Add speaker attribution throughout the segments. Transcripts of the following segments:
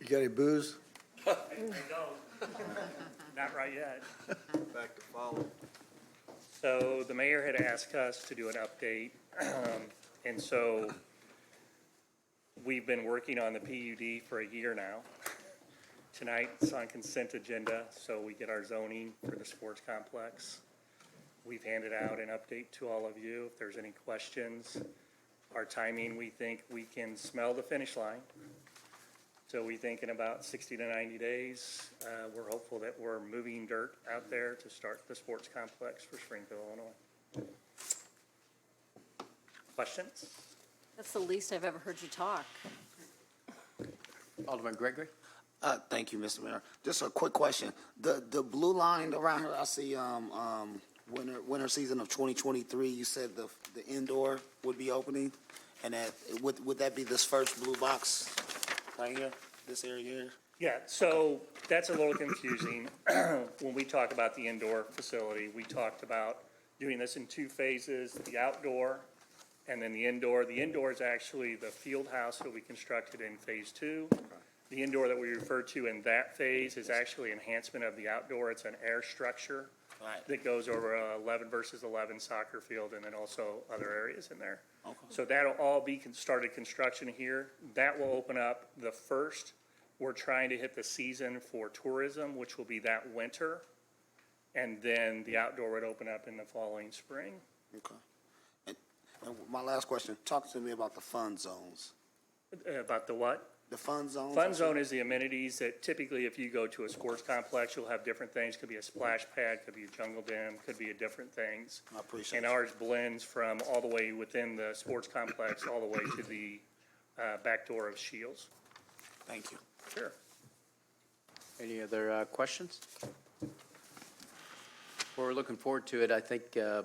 Speaker 1: You got any booze?
Speaker 2: Not right yet.
Speaker 3: Back to follow.
Speaker 2: So the mayor had asked us to do an update, um, and so we've been working on the PUD for a year now. Tonight, it's on consent agenda, so we get our zoning for the sports complex. We've handed out an update to all of you, if there's any questions. Our timing, we think we can smell the finish line. So we think in about 60 to 90 days, uh, we're hopeful that we're moving dirt out there to start the sports complex for Springfield, Illinois. Questions?
Speaker 4: That's the least I've ever heard you talk.
Speaker 5: Alderman Gregory?
Speaker 6: Uh, thank you, Mr. Mayor. Just a quick question. The, the blue line around here, I see, um, um, winter, winter season of twenty twenty-three, you said the, the indoor would be opening? And that, would, would that be this first blue box right here, this area here?
Speaker 2: Yeah, so that's a little confusing. When we talk about the indoor facility, we talked about doing this in two phases, the outdoor and then the indoor. The indoor is actually the field house that we constructed in phase two. The indoor that we refer to in that phase is actually enhancement of the outdoor. It's an air structure
Speaker 6: Right.
Speaker 2: that goes over a eleven versus eleven soccer field and then also other areas in there. So that'll all be con- started construction here. That will open up the first. We're trying to hit the season for tourism, which will be that winter. And then the outdoor would open up in the following spring.
Speaker 6: Okay. And, and my last question, talk to me about the fun zones.
Speaker 2: Uh, About the what?
Speaker 6: The fun zones?
Speaker 2: Fun zone is the amenities that typically if you go to a sports complex, you'll have different things. Could be a splash pad, could be a jungle gym, could be a different things.
Speaker 6: I appreciate
Speaker 2: And
Speaker 6: it.
Speaker 2: ours blends from all the way within the sports complex, all the way to the uh, back door of Shields.
Speaker 6: Thank you.
Speaker 2: Sure.
Speaker 5: Any other uh, questions? Well, We're looking forward to it. I think uh,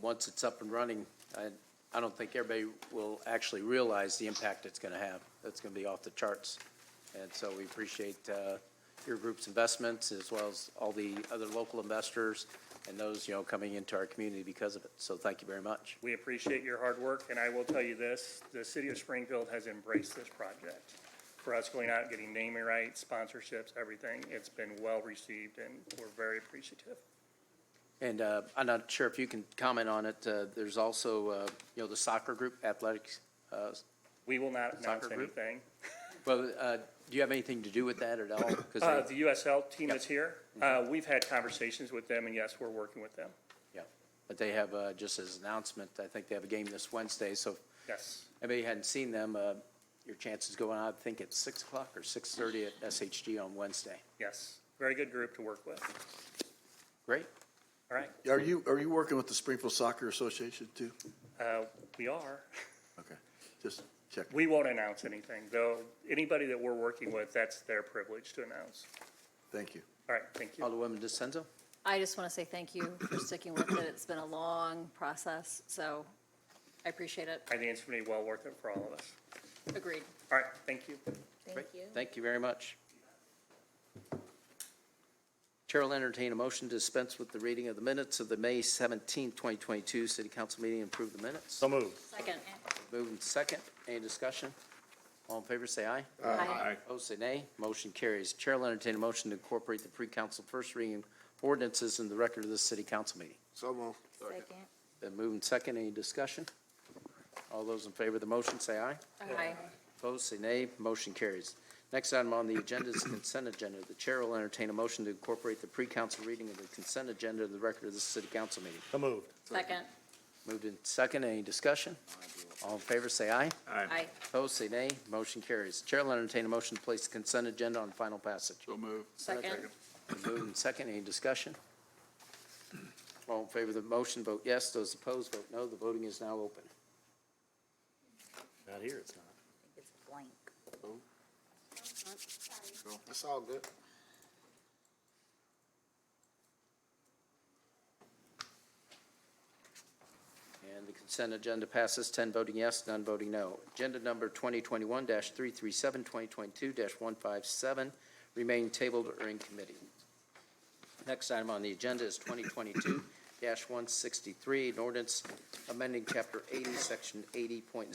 Speaker 5: once it's up and running, I I don't think everybody will actually realize the impact it's going to have. That's going to be off the charts. And so we appreciate uh, your group's investments as well as all the other local investors and those, you know, coming into our community because of it. So thank you very much.
Speaker 2: We appreciate your hard work, and I will tell you this, the city of Springfield has embraced this project. For us going out, getting naming rights, sponsorships, everything, it's been well-received, and we're very appreciative.
Speaker 5: And uh, I'm not sure if you can comment on it. Uh, There's also, uh, you know, the soccer group, athletics. uh,
Speaker 2: We will not announce
Speaker 5: Soccer group?
Speaker 2: anything.
Speaker 5: Well, uh, do you have anything to do with that at all? 'Cause
Speaker 2: Uh,
Speaker 5: they-
Speaker 2: The USL team is here. Uh, We've had conversations with them, and yes, we're working with them.
Speaker 5: Yeah, but they have, uh, just as an announcement, I think they have a game this Wednesday, so if
Speaker 2: Yes.
Speaker 5: anybody hadn't seen them, uh, your chances go on, I think it's six o'clock or six thirty at SHG on Wednesday.
Speaker 2: Yes. Very good group to work with.
Speaker 5: Great,
Speaker 2: All right,
Speaker 1: Are you, are you working with the Springfield Soccer Association too?
Speaker 2: Uh, we are.
Speaker 1: Okay, just check.
Speaker 2: We won't announce anything, though. Anybody that we're working with, that's their privilege to announce.
Speaker 1: Thank you.
Speaker 2: All right, thank you.
Speaker 5: Alderwoman DeSenza?
Speaker 4: I just want to say thank you for sticking with it. It's been a long process, so I appreciate it.
Speaker 2: I think it's going to be well worth it for all of us.
Speaker 4: Agreed.
Speaker 2: All right, thank you.
Speaker 5: Thank you. Thank you very much. Chair will entertain a motion to dispense with the reading of the minutes of the May seventeenth, twenty twenty-two city council meeting and approve the minutes.
Speaker 2: moved.
Speaker 4: Second.
Speaker 5: Moved and second, any discussion? All in favor, say aye.
Speaker 4: Aye.
Speaker 5: Opposed, say nay. Motion carries. Chair will entertain a motion to incorporate the pre-council first reading ordinances in the record of this city council meeting.
Speaker 6: So um, moved.
Speaker 7: Second.
Speaker 5: Been moved and second. Any discussion? All those in favor of the motion, say aye.
Speaker 4: Aye.
Speaker 5: Opposed, say nay. Motion carries. Next item on the agenda is consent agenda. The chair will entertain a motion to incorporate the pre-council reading of the consent agenda in the record of this city council meeting.
Speaker 4: Second.
Speaker 5: Moved and second. Any discussion? All in favor, say aye.
Speaker 4: Aye.
Speaker 5: Opposed, say nay. Motion carries. Chair will entertain a motion to place the consent agenda on final passage.
Speaker 3: So move.
Speaker 4: Second.
Speaker 5: Moved and second, any discussion? All in favor of the motion, vote yes. Those opposed, vote no. The voting is now open.
Speaker 2: Not here, it's not.
Speaker 7: It's blank.
Speaker 6: It's all good.
Speaker 5: And the consent agenda passes, 10 voting yes, none voting no. Agenda number 2021-337, 2022-157 remain tabled or in committee. Next item on the agenda is 2022-163, an ordinance amending Chapter 80, Section 80.0.